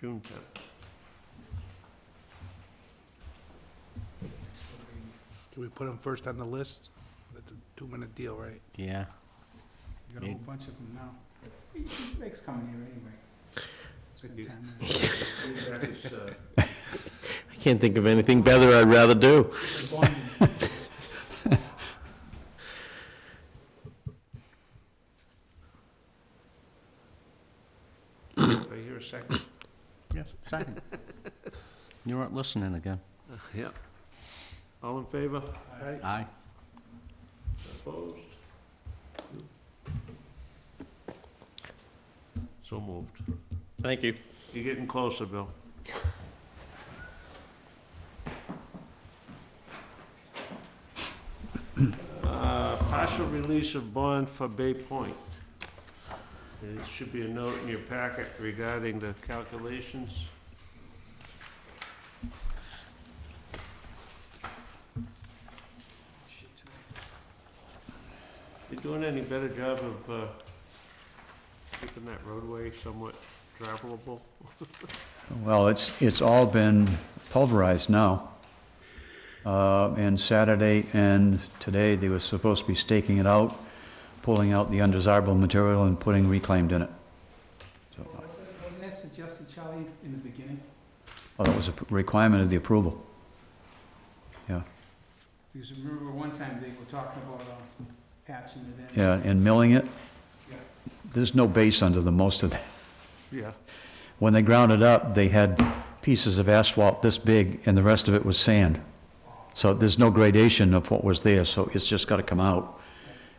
June tenth. Do we put them first on the list? That's a two-minute deal, right? Yeah. You got a whole bunch of them now. He- he likes coming here anyway. Spend You- time with uh, I can't think of anything better I'd rather do. him. Bonding. I hear a second. Yes, second. You weren't listening again. Yeah. All in favor? Aye. Opposed? So moved. Thank you. You're getting closer, Bill. Uh, Partial release of bond for Bay Point. There should be a note in your packet regarding the calculations. You doing any better job of uh, keeping that roadway somewhat travelable? Well, it's, it's all been pulverized now. Uh, And Saturday and today, they were supposed to be staking it out, pulling out the undesirable material and putting reclaimed in it. So, Wasn't that suggested, Charlie, in the beginning? well, that was a requirement of the approval. Because remember one time they were talking about um, patching it in. Yeah, and milling it, Yeah. there's no base under the most of that. Yeah. When they ground it up, they had pieces of asphalt this big, and the rest of it was sand. So there's no gradation of what was there, so it's just got to come out.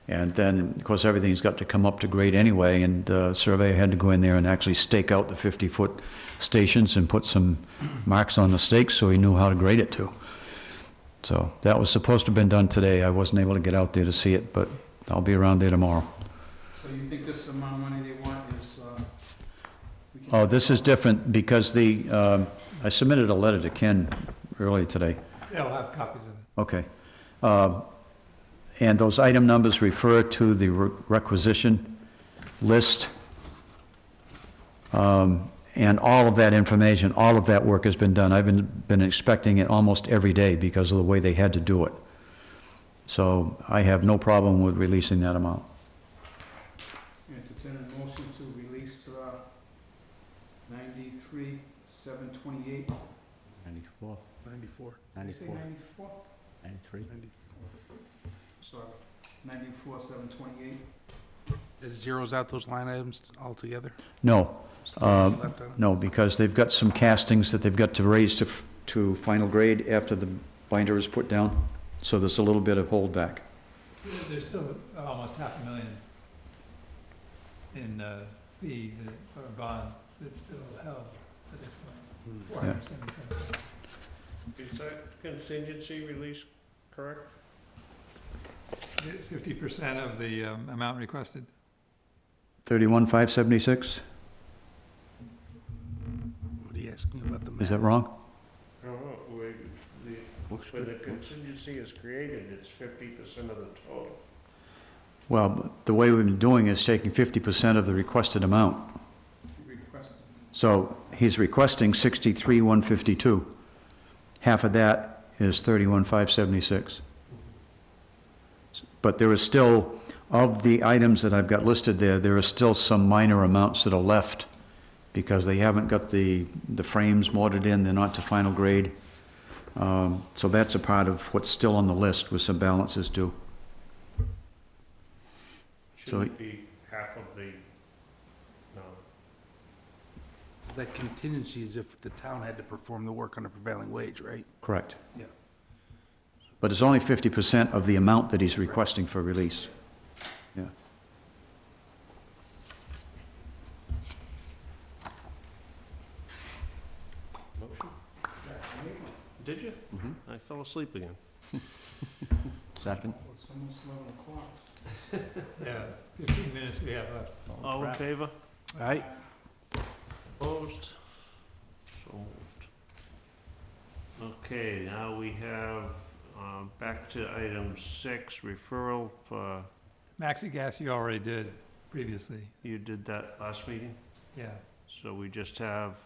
And then, of course, everything's got to come up to grade anyway, and uh, surveyor had to go in there and actually stake out the 50-foot stations and put some marks on the stakes so he knew how to grade it to. So that was supposed to have been done today. I wasn't able to get out there to see it, but I'll be around there tomorrow. So you think this amount of money they want is, uh? we can- Oh, this is different because the, um, I submitted a letter to Ken earlier today. They'll have copies of it. Okay. Uh, And those item numbers refer to the re- requisition list. Um, And all of that information, all of that work has been done. I've been, been expecting it almost every day because of the way they had to do it. So I have no problem with releasing that amount. Entertain a motion to release, uh, ninety-three, seven twenty-eight. Ninety-four, Ninety-four. Say ninety-four, ninety-four? ninety-three. Sorry, ninety-four, seven twenty-eight. It zeros out those line items altogether? No, Uh, Left on it? No, because they've got some castings that they've got to raise to, f- to final grade after the binder is put down, so there's a little bit of holdback. There's still almost half a million in uh, fee that- or bond that's still held at this point, Hmm. four Yeah. hundred and seventy-seven. Is that contingency release correct? Fifty percent of the um, amount requested. Thirty-one, five seventy-six, What are you asking about the math? is that wrong? I don't know, where the, Looks when the good. contingency is created, it's fifty percent of the total. Well, but the way we've been doing is taking fifty percent of the requested amount. requested. So he's requesting sixty-three, one fifty-two. Half of that is thirty-one, five seventy-six. But there is still, of the items that I've got listed there, there are still some minor amounts that are left because they haven't got the, the frames mortared in, they're not to final grade. Um, So that's a part of what's still on the list with some balances due. So- Shouldn't be half of the, no. That contingency is if the town had to perform the work on a prevailing wage, right? Correct. Yeah. But it's only 50% of the amount that he's requesting for release. Yeah. Motion? Did you? Mhm. I fell asleep again. Second. Well, It's almost eleven o'clock. Yeah, fifteen minutes we have left. All in favor? All right, Opposed? So moved. Okay, now we have, um, back to item six, referral for, Maxi gas you already did previously, you did that last meeting? yeah. So we just have